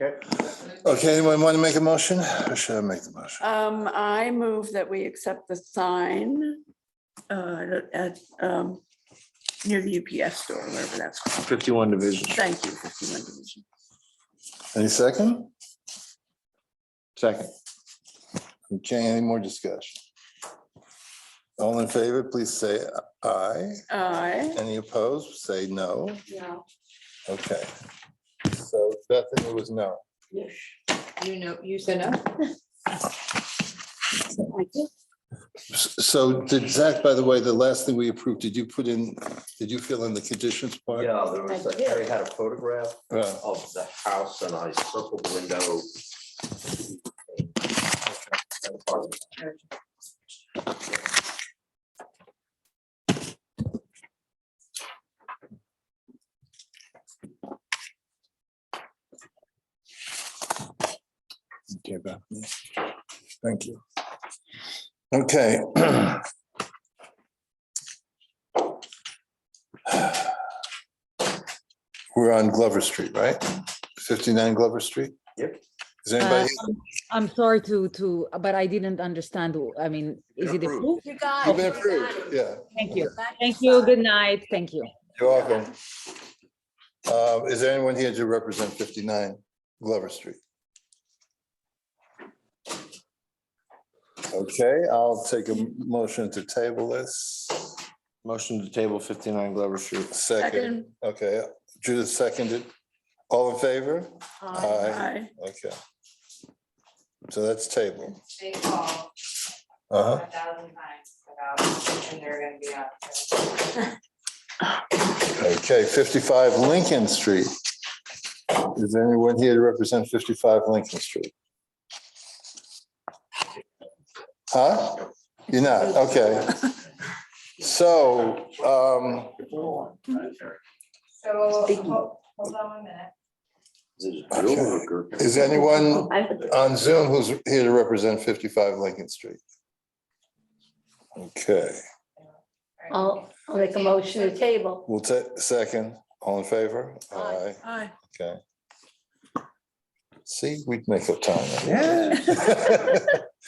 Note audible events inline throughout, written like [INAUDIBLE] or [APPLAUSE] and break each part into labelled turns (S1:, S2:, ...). S1: Okay,
S2: Okay, anyone want to make a motion? Or should I make the motion?
S3: Um, I move that we accept the sign uh, at, um, near the UPS store, wherever that's called.
S4: Fifty-one division.
S3: Thank you. 51 Division.
S2: Any second?
S4: Second.
S2: Okay, any more discussion? All in favor, please say aye.
S3: Aye.
S2: Any opposed, say no.
S5: No,
S2: Okay. So Bethany was no.
S5: you, you know, you said no.
S2: So did Zach, by the way, the last thing we approved, did you put in, did you fill in the conditions part?
S6: Yeah, there was,
S5: I
S6: a-
S5: did.
S6: Harry had a photograph
S2: Yeah.
S6: of the house and I circled the window.
S2: Okay, Bethany. Thank you. Okay. [CLEARS THROAT] We're on Glover Street, right? Fifty-nine Glover Street?
S6: Yep.
S2: Is anybody,
S7: I'm sorry to, to, but I didn't understand. I mean, is it approved?
S5: You got.
S2: you've
S5: it,
S2: been
S5: you got
S2: approved,
S5: it.
S2: yeah.
S7: Thank you.
S5: You got it,
S7: Thank
S5: you
S7: you.
S5: got it.
S7: Good night. Thank you.
S2: You're welcome. Uh, Is there anyone here to represent 59 Glover Street? Okay, I'll take a motion to table this.
S4: Motion to table fifty-nine Glover Street.
S2: Second,
S3: Second.
S2: okay, Judith seconded. All in favor?
S8: Um,
S2: Aye.
S3: Aye.
S2: Okay. So that's table.
S8: They call a
S2: Uh-huh.
S8: thousand times about, and they're gonna be out. there.
S2: Okay, 55 Lincoln Street. Is there anyone here to represent 55 Lincoln Street? Huh? You're not, okay. So, um,
S8: So,
S5: Speaking.
S8: ho- hold on one minute.
S2: is anyone
S5: I-
S2: on Zoom who's here to represent 55 Lincoln Street? Okay,
S8: All right.
S5: I'll, I'll make a motion to table.
S2: we'll take, second, all in favor? Aye.
S3: Aye.
S2: Okay. See, we'd make up time.
S6: Yeah.
S5: Okay.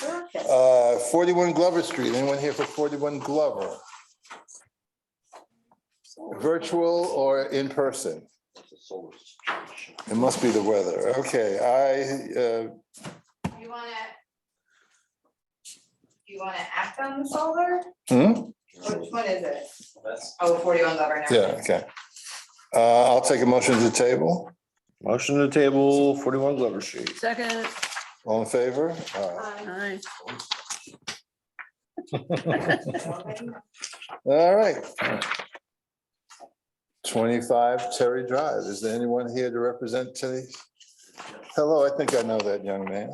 S2: [LAUGHS] Uh, 41 Glover Street, anyone here for 41 Glover? Virtual or in person? It must be the weather. Okay, I, uh,
S8: You wanna? You wanna act on the solar?
S2: hmm?
S8: Which one is it? Oh, forty-one Glover. never
S2: yeah,
S8: mind.
S2: okay. Uh, I'll take a motion to table.
S4: Motion to table forty-one Glover Street.
S3: Second.
S2: All in favor? Uh,
S3: Aye.
S2: All right. 25 Terry Drive. Is there anyone here to represent Terry? Hello, I think I know that young man.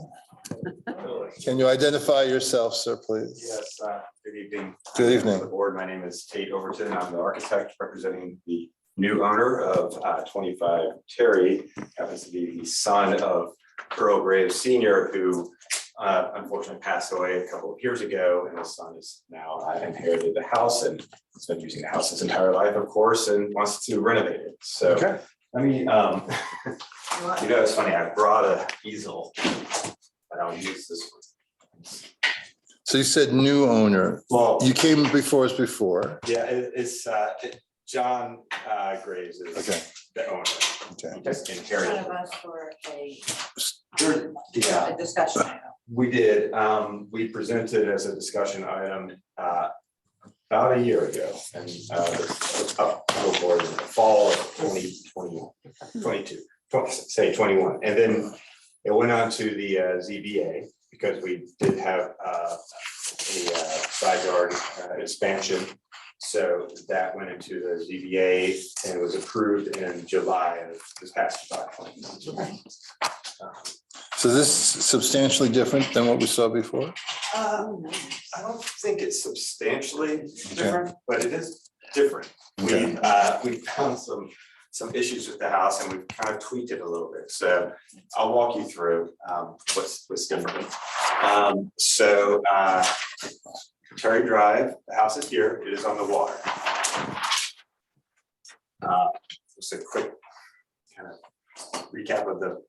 S2: Can you identify yourself, sir, please?
S9: Yes, uh, good evening.
S2: Good
S9: Members of The
S2: evening.
S9: board, my name is Tate Overton. I'm the architect representing the new owner of uh, 25 Terry. Happens to be the son of Earl Graves Senior, who uh, unfortunately passed away a couple of years ago. And his son is now uh, inherited the house and has been using the house his entire life, of course, and wants to renovate it. So, I mean, um, [LAUGHS]
S8: You want-
S9: you know, it's funny, I brought a easel. I don't use this one.
S2: So you said new owner.
S9: Well.
S2: You came before us before.
S9: Yeah, it- it's uh, it- John uh, Graves is
S2: Okay,
S9: the owner.
S2: okay.
S9: He just
S8: One
S9: inherited.
S8: of us for a
S9: Yeah,
S8: a discussion item.
S9: we did. Um, We presented as a discussion item uh, about a year ago and uh, the up the board in the fall of 2021, 22, 20 say 21. And then it went on to the uh, ZBA because we did have uh, a uh, side yard uh, expansion. So that went into the ZBA and was approved in July of this past July. Um,
S2: So this is substantially different than what we saw before?
S9: Um, I don't think it's substantially different, but it is different.
S2: Okay.
S9: We, uh, we found some, some issues with the house and we've kind of tweaked it a little bit, so I'll walk you through, um, what's, what's different. Um, so, uh, Terry Drive, the house is here, it is on the water. Uh, Just a quick kind of recap of the